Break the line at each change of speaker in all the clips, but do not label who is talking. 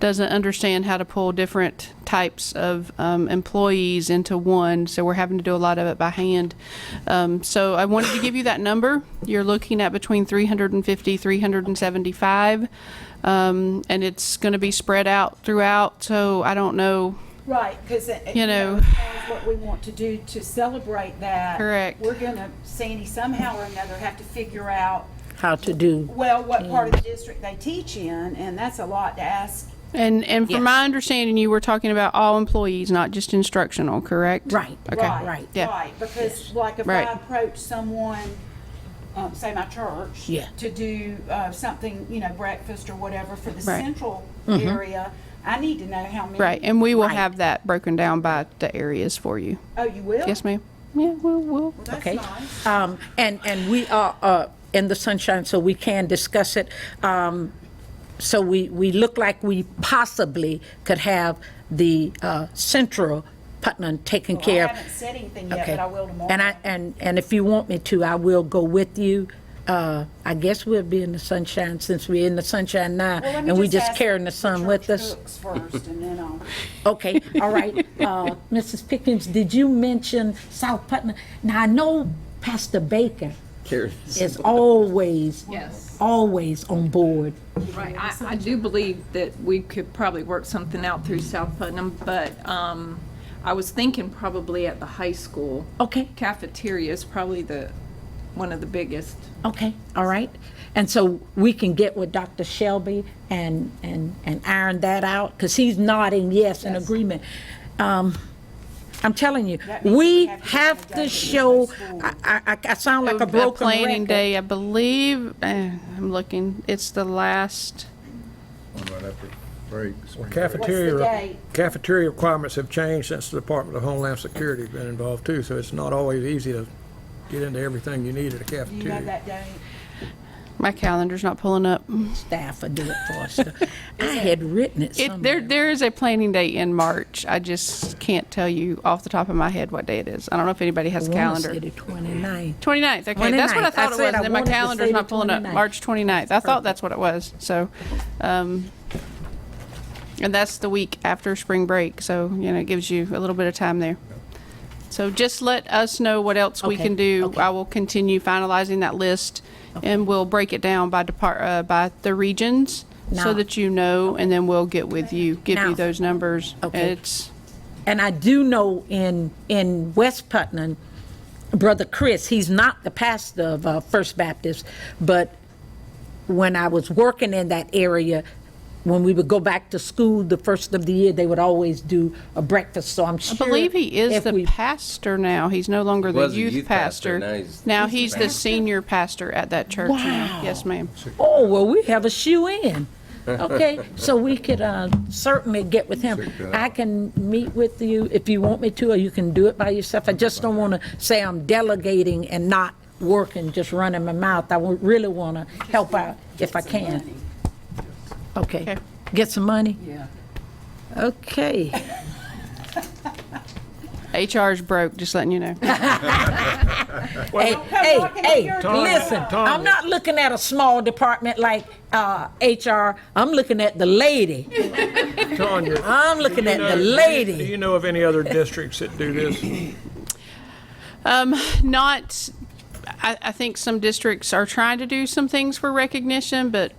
doesn't understand how to pull different types of um, employees into one, so we're having to do a lot of it by hand. Um, so I wanted to give you that number. You're looking at between 350, 375, um, and it's going to be spread out throughout. So I don't know.
Right, because.
You know.
What we want to do to celebrate that.
Correct.
We're gonna, Sandy, somehow or another have to figure out,
how to do.
well, what part of the district they teach in, and that's a lot to ask.
And and from my understanding, you were talking about all employees, not just instructional, correct?
Right.
Okay.
right,
yeah.
Right, because like if
Right.
I approach someone, um, say my church.
Yeah.
To do, uh, something, you know, breakfast or whatever for the
Right.
central
Mm-hmm.
area, I need to know how many.
Right. And we will
Right.
have that broken down by the areas for you.
Oh, you will?
Yes, ma'am. Yeah, we'll. we'll.
Well, that's
Okay.
nice.
Um, and, and we are, uh, in the sunshine, so we can discuss it. Um, so we, we look like we possibly could have the, uh, central Putnam taken
I
care of.
haven't said anything yet,
Okay.
but I will tomorrow.
And I, and, and if you want me to, I will go with you. Uh, I guess we'll be in the sunshine since we're in the sunshine now,
Well, let me
and we just
ask
carrying the sun with
church
us.
cooks First, and then I'll.
Okay, all right. Uh, Mrs. Pickens, did you mention South Putnam? Now, I know Pastor Baker is always,
Yes.
always on board.
Right, I, I do believe that we could probably work something out through South Putnam, but, um, I was thinking probably at the high school.
Okay.
Cafeteria is probably the, one of the biggest.
Okay, all right. And so we can get with Dr. Shelby and, and, and iron that out, because he's nodding yes in agreement. Um, I'm telling you,
That means
we
we have to
have
get
to
a
show,
school.
I, I- I, I sound like a
a
broken
planning
record.
day, I believe. eh, I'm looking. It's the last.
Right after break.
What's the
Cafeteria,
date?
cafeteria requirements have changed since the Department of Homeland Security's been involved too, so it's not always easy to get into everything you need at a
Do you know
cafeteria.
that day?
My calendar's not pulling up.
Staff will do it for us. I had written it
It, there,
somewhere.
there is a planning day in March. I just can't tell you off the top of my head what day it is. I don't know if anybody has a
I wanna say
calendar.
the 29th.
29th. Okay, that's what I
29th.
thought it
I said
was.
I
And then my
wanted to
calendar's
say
not
the
pulling up.
29th.
March 29th. I thought that's what it was. So, um, and that's the week after spring break. So, you know, it gives you a little bit of time there. So just let us know what else we
Okay,
can do.
okay.
I will continue finalizing that list and we'll break it down by depart, uh, by the regions so
Now-
that you know, and then we'll get with you, give you
Now-
those numbers.
Okay.
It's,
And I do know in, in West Putnam, Brother Chris, he's not the pastor of uh, First Baptist, but when I was working in that area, when we would go back to school the first of the year, they would always do a breakfast, so I'm
I
sure.
believe he is
if
the
we-
pastor now. He's no longer the
was a
youth
youth pastor, now
pastor.
he's-
Now he's the senior pastor at that church now.
Wow.
Yes, ma'am.
Oh, well, we have a shoe in, okay? So we could uh, certainly get with him. I can meet with you if you want me to, or you can do it by yourself. I just don't want to say I'm delegating and not working, just running my mouth. I would really want to help out if I can. Okay,
Okay.
get some money?
Yeah.
Okay.
HR's broke, just letting you know.
Hey,
come
hey,
knocking on
hey,
your door.
listen,
Tom.
I'm not looking at a small department like uh, HR. I'm looking at the lady.
Tanya,
I'm looking at the
do you-
lady.
Do you know of any other districts that do this?
not I, I think some districts are trying to do some things for recognition but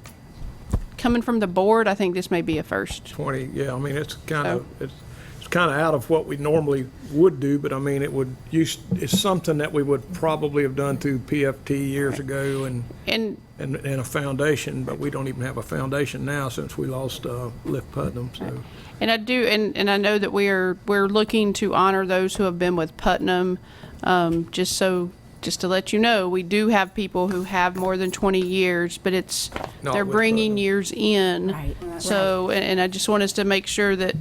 coming from the board i think this may be a first
20, yeah, I mean, it's kind
Oh.
of, it's, it's kind of out of what we normally would do, but I mean, it would, use it's something that we would probably have done through PFT years ago and
and
and, and a foundation, but we don't even have a foundation now since we lost uh, Lift Putnam, so.
and i do and, and i know that we are we're looking to honor those who have been with putnam um, just so just to let you know we do have people who have more than 20 years but it's
Not
they're
with
bringing
Putnam.
years in
Right.
so and, and i just want us to make sure that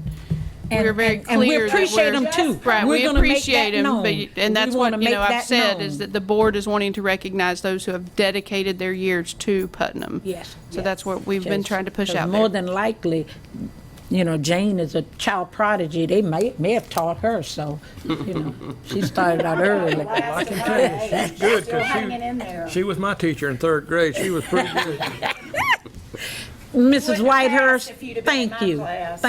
And-
we're very
and- and we
clear that
appreciate
we're-
'em too.
Right,
We're
we
gonna make
appreciate
that
them, but,
known.
and that's
We wanna
what, you know,
make
I've
that
said, is
known.
that the board is wanting to recognize those who have dedicated their years to Putnam.
Yes.
So that's what we've been trying to push
Because
out
More
there.
than likely, you know, Jane is a child prodigy. They may, may have taught her, so, you know, she started out early.
Last of my age,
Good,
still
because
hanging in there.
she, she was my teacher in third grade. She was pretty good.
Mrs.
Wouldn't have asked
Whitehurst,
if you'd have been in
thank
my
you.
class.